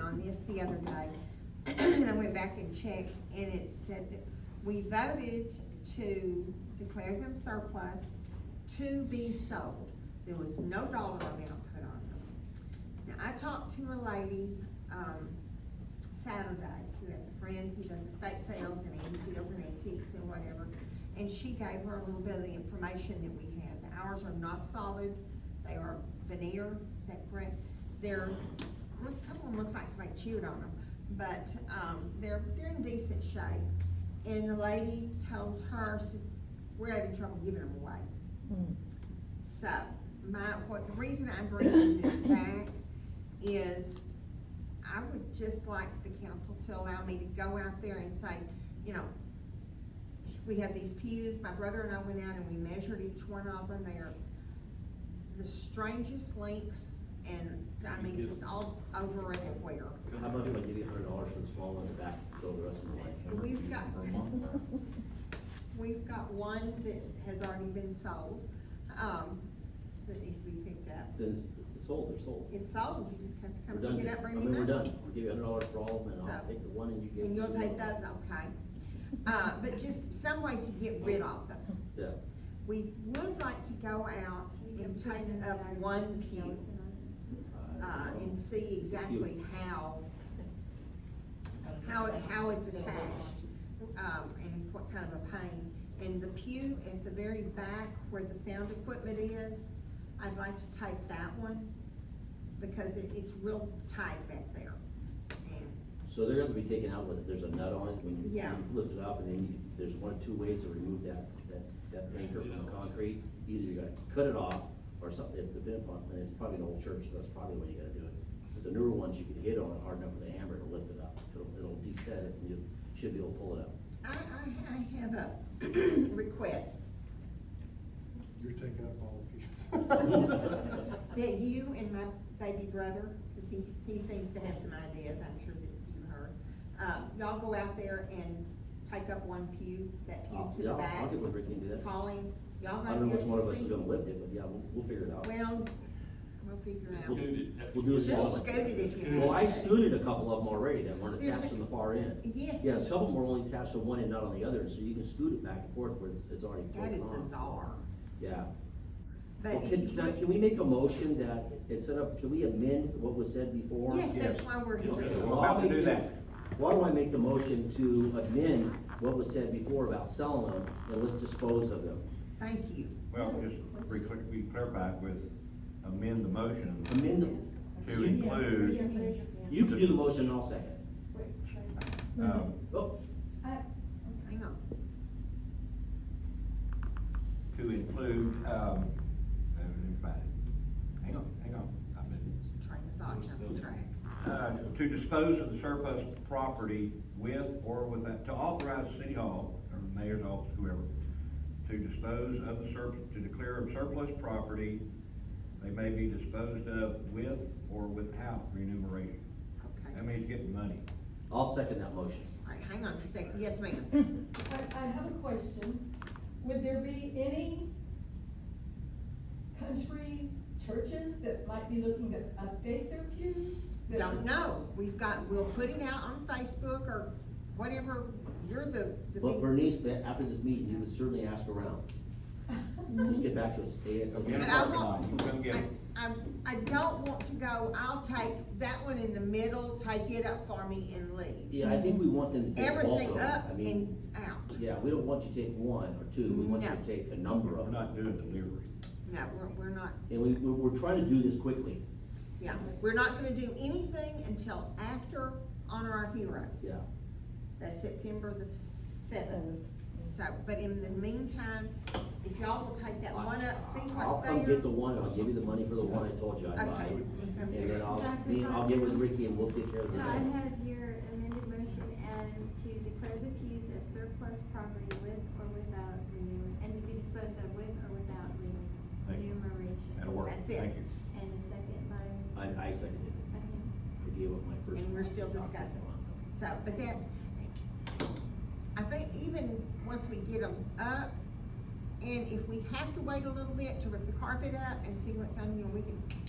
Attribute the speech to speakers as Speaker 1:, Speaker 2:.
Speaker 1: on this the other day, and I went back and checked, and it said that we voted to declare them surplus to be sold. There was no dollar amount put on them. Now, I talked to a lady, um, Saturday, who has a friend who does estate sales and antique deals and antiques and whatever, and she gave her a little bit of the information that we had. The Ours are not solid, they are veneer, is that correct? They're, look, a couple of them looks like somebody chewed on them, but, um, they're, they're in decent shape. And the lady told her, says, we're having trouble giving them away. So, my, what, the reason I'm bringing this back is I would just like the council to allow me to go out there and say, you know, we have these pews, my brother and I went out and we measured each one of them, they are the strangest lengths and, I mean, just all over everywhere.
Speaker 2: How about if I give you a hundred dollars for the small one in the back, go the rest of the way?
Speaker 1: We've got-
Speaker 2: Per month?
Speaker 1: We've got one that has already been sold, um, that needs to be picked up.
Speaker 2: Then it's sold, they're sold.
Speaker 1: It's sold, you just have to
Speaker 2: We're
Speaker 1: come
Speaker 2: done.
Speaker 1: pick it up, bring
Speaker 2: I
Speaker 1: me
Speaker 2: mean,
Speaker 1: back.
Speaker 2: we're done. We'll give you a hundred dollars for all of them, and I'll
Speaker 1: So-
Speaker 2: take the one and you give.
Speaker 1: And you'll
Speaker 2: me the
Speaker 1: take
Speaker 2: other.
Speaker 1: that, okay. Uh, but just some way to get rid of them.
Speaker 2: Yeah,
Speaker 1: We would like to go out and take up one pew, uh, and see exactly how, how, it- how it's attached, um, and what kind of a pain. And the pew at the very back where the sound equipment is, I'd like to take that one, because it, it's real tight back there. And
Speaker 2: so they're gonna be taken out with, there's a nut on it, when you-
Speaker 1: Yeah.
Speaker 2: you lift it up, and then you, there's one of two ways to remove that, that, that anchor from the concrete. Either you gotta cut it off, or something, if the bin pump, and it's probably an old church, so that's probably the way you gotta do it. But the newer ones, you can hit on it hard enough with a hammer to lift it up, it'll, it'll de-set it, and you should be able to pull it up.
Speaker 1: I, I, I have a request
Speaker 3: You're taking up all the pieces.
Speaker 1: that you and my baby brother, because he, he seems to have some ideas, I'm sure that you heard. Uh, y'all go out there and take up one pew, that pew
Speaker 2: I'll-
Speaker 1: to
Speaker 2: yeah,
Speaker 1: the
Speaker 2: I'll-
Speaker 1: back.
Speaker 2: I'll get with Ricky and do that.
Speaker 1: Colleen, y'all
Speaker 2: I
Speaker 1: go
Speaker 2: don't know
Speaker 1: out
Speaker 2: which one of us is
Speaker 1: there
Speaker 2: gonna
Speaker 1: and
Speaker 2: lift it, but yeah, we'll, we'll figure it out.
Speaker 1: see. Well, we'll figure
Speaker 4: Just
Speaker 1: out.
Speaker 4: scoot it.
Speaker 2: We'll do a
Speaker 1: Just
Speaker 2: small.
Speaker 1: scoot it if you
Speaker 2: Well, I
Speaker 1: have to.
Speaker 2: scooted a couple of them already that weren't
Speaker 1: There's
Speaker 2: attached
Speaker 1: a-
Speaker 2: on the far end.
Speaker 1: Yes.
Speaker 2: Yeah, some of them were only attached to one and not on the other, and so you can scoot it back and forth where it's, it's already.
Speaker 1: That
Speaker 2: bolted
Speaker 1: is
Speaker 2: on.
Speaker 1: bizarre.
Speaker 2: Yeah.
Speaker 1: But
Speaker 2: Well,
Speaker 1: if
Speaker 2: can,
Speaker 1: you
Speaker 2: can I,
Speaker 1: would-
Speaker 2: can we make a motion that instead of, can we amend what was said before?
Speaker 1: Yes, that's why we're here.
Speaker 2: Okay,
Speaker 4: We're
Speaker 2: well,
Speaker 4: about to
Speaker 2: I'll make
Speaker 4: do
Speaker 2: the-
Speaker 4: that.
Speaker 2: Why do I make the motion to amend what was said before about selling them, and let's dispose of them?
Speaker 1: Thank you.
Speaker 5: Well, just re- we clarify with amend the motion
Speaker 2: Amend them,
Speaker 5: to include,
Speaker 2: you can do the motion, and I'll second.
Speaker 5: um,
Speaker 2: Oh,
Speaker 1: Hang on.
Speaker 5: to include, um, uh, everybody. hang on, hang on, I'm in.
Speaker 1: Train of thought jumped the track.
Speaker 5: Uh, to dispose of the surplus property with or without, to authorize City Hall, or the Mayor's Office, whoever, to dispose of the surplus, to declare of surplus property, they may be disposed of with or without remuneration.
Speaker 1: Okay.
Speaker 5: That means getting money.
Speaker 2: I'll second that motion.
Speaker 1: All right, hang on just a second. Yes, ma'am.
Speaker 6: I, I have a question. Would there be any country churches that might be looking to update their pews? that-
Speaker 1: Don't know, we've got, we'll put it out on Facebook or whatever, you're the, the
Speaker 2: But
Speaker 1: big.
Speaker 2: Bernice, ba- after this meeting, you would certainly ask around, just get back to us
Speaker 1: But
Speaker 2: ASAP.
Speaker 1: I
Speaker 5: Come
Speaker 1: won't-
Speaker 5: on, come get
Speaker 1: I,
Speaker 5: it.
Speaker 1: I, I don't want to go, I'll take that one in the middle, take it up for me and leave.
Speaker 2: Yeah, I think we want them to take bulk of
Speaker 1: Everything
Speaker 2: them.
Speaker 1: up
Speaker 2: I
Speaker 1: and
Speaker 2: mean,
Speaker 1: out,
Speaker 2: yeah, we don't want you to take one or two, we want you
Speaker 1: No.
Speaker 2: to take a number
Speaker 5: We're
Speaker 2: of them.
Speaker 5: not doing delivery.
Speaker 1: no, we're, we're not,
Speaker 2: And we, we- we're trying to do this quickly,
Speaker 1: yeah, we're not gonna do anything until after Honor Our Heroes.
Speaker 2: yeah.
Speaker 1: That's September the seventh, so, but in the meantime, if y'all will take that one up, see
Speaker 2: I'll
Speaker 1: what's there.
Speaker 2: come get the one, I'll give you the money for the one I told you I'd buy,
Speaker 1: Okay.
Speaker 2: and then I'll,
Speaker 7: Dr.
Speaker 2: me- I'll
Speaker 7: Fox?
Speaker 2: get with Ricky and we'll take care of the
Speaker 7: So I
Speaker 2: rest.
Speaker 7: have your amended motion as to declare the pews as surplus property with or without remuneration, and to be disposed of with or without
Speaker 5: Thank you. That'll
Speaker 7: remuneration.
Speaker 5: work.
Speaker 1: That's it.
Speaker 5: Thank you.
Speaker 7: And the second by,
Speaker 2: I, I seconded it,
Speaker 7: okay,
Speaker 2: I gave up my first.
Speaker 1: And we're still
Speaker 2: document.
Speaker 1: discussing. So, but that, I think even once we get them up, and if we have to wait a little bit to rip the carpet up and see what's on, you know, we can